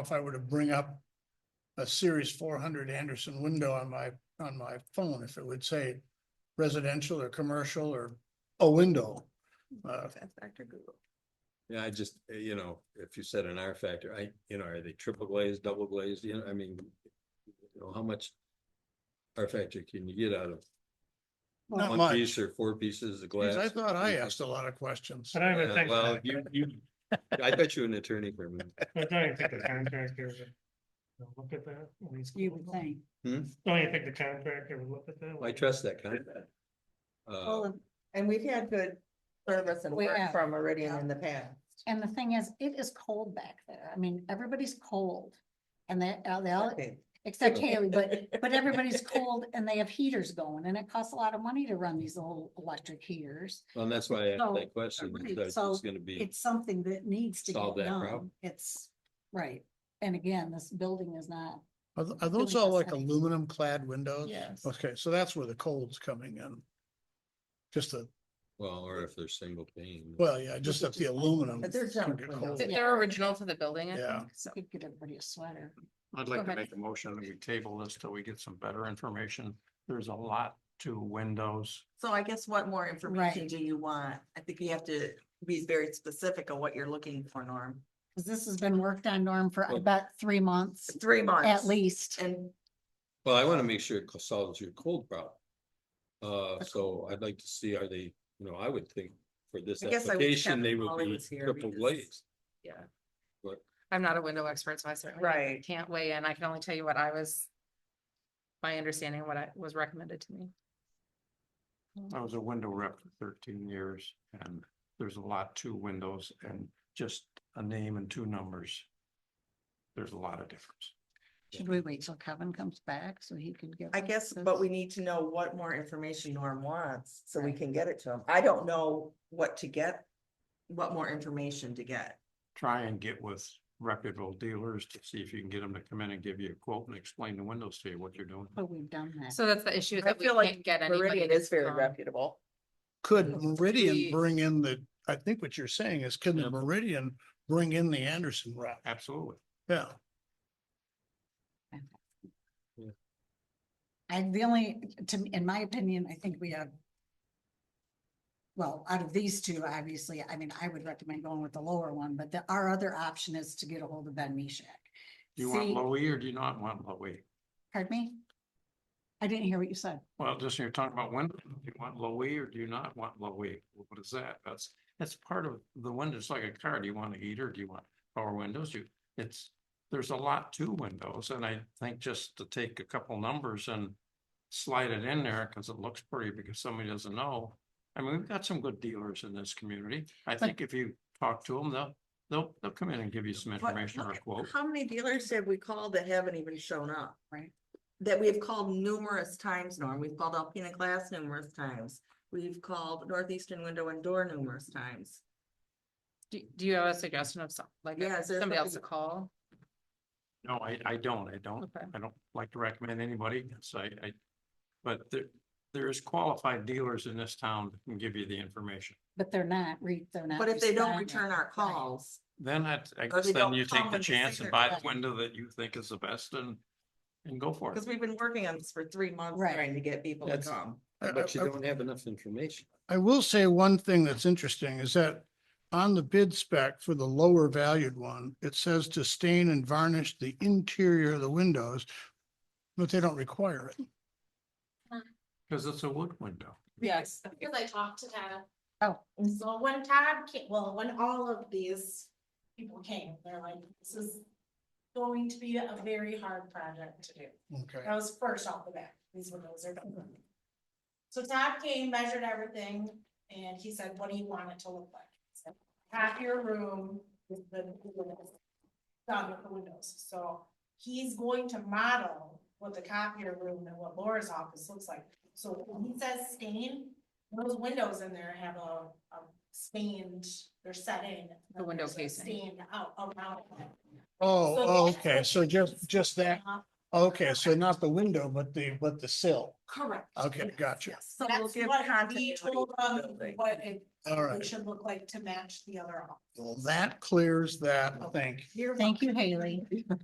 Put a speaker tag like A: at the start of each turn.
A: if I were to bring up a Series four hundred Anderson window on my, on my phone, if it would say residential or commercial or a window. Uh,
B: That's Dr. Google.
C: Yeah, I just, uh, you know, if you said an R factor, I, you know, are they triple glazed, double glazed, you know, I mean, you know, how much R factor can you get out of
A: Not
C: one
A: much,
C: piece or four pieces of
A: because
C: glass?
A: I thought I asked a lot of questions.
D: But I would
C: Uh,
D: think,
C: Well,
D: that-
C: you, you, I bet you an attorney for a minute.
D: but don't you think the contractor would would look at that? when he's-
E: You would think.
D: Don't you think the contractor would look at that?
C: Oh, I trust that kind Uh,
E: Oh,
C: of.
B: Well, And we've had good service and
E: We
B: work
E: have.
B: from Meridian in the past.
E: And the thing is, it is cold back there. I mean, everybody's cold. And they, uh, they all,
B: Okay.
E: except Haley, but, but everybody's cold and they have heaters going and it costs a lot of money to run these little electric heaters.
C: And that's why I asked
E: So,
C: that question,
E: right,
C: because
E: so
C: it's gonna be,
E: It's something that needs to
C: Solve
E: get
C: that
E: done.
C: problem.
E: It's, right. And again, this building is not,
A: Are, th- are those
E: Really
A: all like
E: fascinating.
A: aluminum clad windows?
B: Yes.
A: Okay, so that's where the cold's coming in. Just the,
C: well, or if they're single pane.
A: well, yeah, just that the aluminum.
B: But there's
A: can
B: junk
A: get
B: windows.
A: cold.
F: Th- They're original to the building, I
A: Yeah.
F: think, so.
E: could get everybody a sweater.
G: I'd like to
F: ahead.
G: make a motion that we table this till we get some better information. There's a lot to windows.
B: So I guess what more information
E: Right.
B: do you want? I think you have to be very specific on what you're looking for, Norm.
E: Cause this has been worked on, Norm, for
C: Well-
E: about three months
B: Three months.
E: at least.
B: And
C: Well, I wanna make sure it solves your cold problem. Uh, so I'd like to see, are they, you know, I would think for this
B: I guess I would
C: application,
B: have
C: they
B: them
C: would
B: while he
C: be
B: was here
C: triple
B: because-
C: glazed.
F: I'm not a window expert, so I certainly
B: Right.
F: can't weigh in. I can only tell you what I was. My understanding, what I was recommended to me.
G: I was a window rep for thirteen years and there's a lot to windows and just a name and two numbers. There's a lot of difference.
E: Should we wait till Kevin comes back so he can get?
B: I guess, but we need to know what more information Norm wants, so we can get it to him. I don't know what to get, what more information to get.
G: Try and get with reputable dealers to see if you can get them to come in and give you a quote and explain the windows to you, what you're doing.
E: But we've done that.
F: So that's the issue is
B: I
F: that we
B: feel like
F: can't get anybody.
B: Meridian
F: to
B: is very
F: come.
B: reputable.
A: Could Meridian
F: we-
A: bring in the, I think what you're saying is, can the
G: Yep.
A: Meridian bring in the Anderson route?
G: Absolutely.
A: Yeah,
E: I, the only, to, me- in my opinion, I think we have. Well, out of these two, obviously, I mean, I would recommend going with the lower one, but the, our other option is to get a hold of Ben Mishak.
G: Do you want
E: See-
G: low E or do you not want low E?
E: Pardon me? I didn't hear what you said.
G: Well, just you're talking about windows, do you want low E or do you not want low E? What is that? That's, that's part of the windows, like a car. Do you want a heater? Do you want power windows? You, it's, there's a lot to windows and I think just to take a couple numbers and slide it in there because it looks pretty because somebody doesn't know. I mean, we've got some good dealers in this community. I think if you talk to them, they'll, they'll, they'll come in and give you some
B: But
G: information or a
B: look,
G: quote.
B: How many dealers have we called that haven't even shown up?
E: Right.
B: That we have called numerous times, Norm. We've called Alpena Glass numerous times. We've called Northeastern Window and Door numerous times.
F: Do do you have a suggestion of some, like,
B: Yeah, is there
F: somebody else to
B: something-
F: call?
G: No, I, I don't, I don't.
F: Okay.
G: I don't like to recommend anybody, so I, I, but there, there is qualified dealers in this town that can give you the information.
E: But they're not, re, they're not.
B: But if they don't
E: responding.
B: return our calls,
G: Then I, I
B: Or
G: guess
B: they
G: then
B: don't
G: you
B: come
G: take the
B: and say
G: chance and
B: they're
G: buy the
E: bad.
G: window that you think is the best and, and go for it.
B: because we've been working on this for three months
E: Right.
B: trying to get people to
C: That's-
B: come.
A: I-
C: But you
A: I- I-
C: don't have enough information.
A: I will say one thing that's interesting is that on the bid spec for the lower valued one, it says to stain and varnish the interior of the windows, but they don't require it.
G: Because it's a wood window.
F: Yes.
H: Because I talked to Todd.
E: Oh.
H: And so when Todd came, well, when all of these people came, they're like, this is going to be a very hard project to do.
A: Okay.
H: That was first off the bat, these windows are done. So Todd came, measured everything, and he said, what do you want it to look like? I said, Half your room with the the windows, done with the windows, so he's going to model what the copier room and what Laura's office looks like. So when he says stain, those windows in there have a, a stained, they're set in.
F: The window
H: There's a
F: casing.
H: Stained out around. it. Uh,
A: Oh,
H: So
A: oh,
H: that's
A: okay,
H: what
A: so just,
H: he's
A: just that,
H: off
A: Okay, so not the window, but the, but the sill.
H: Correct.
A: Okay,
H: Yes,
A: gotcha.
H: yes.
F: So we'll
H: That's
F: give
H: what we
F: continuity to
H: told
F: the
H: them,
F: building.
H: what it
A: All
H: it
A: right.
H: should look like to match the other. office.
A: Well, that clears that. Thank you.
H: You're
E: Thank you,
H: welcome.
E: Haley.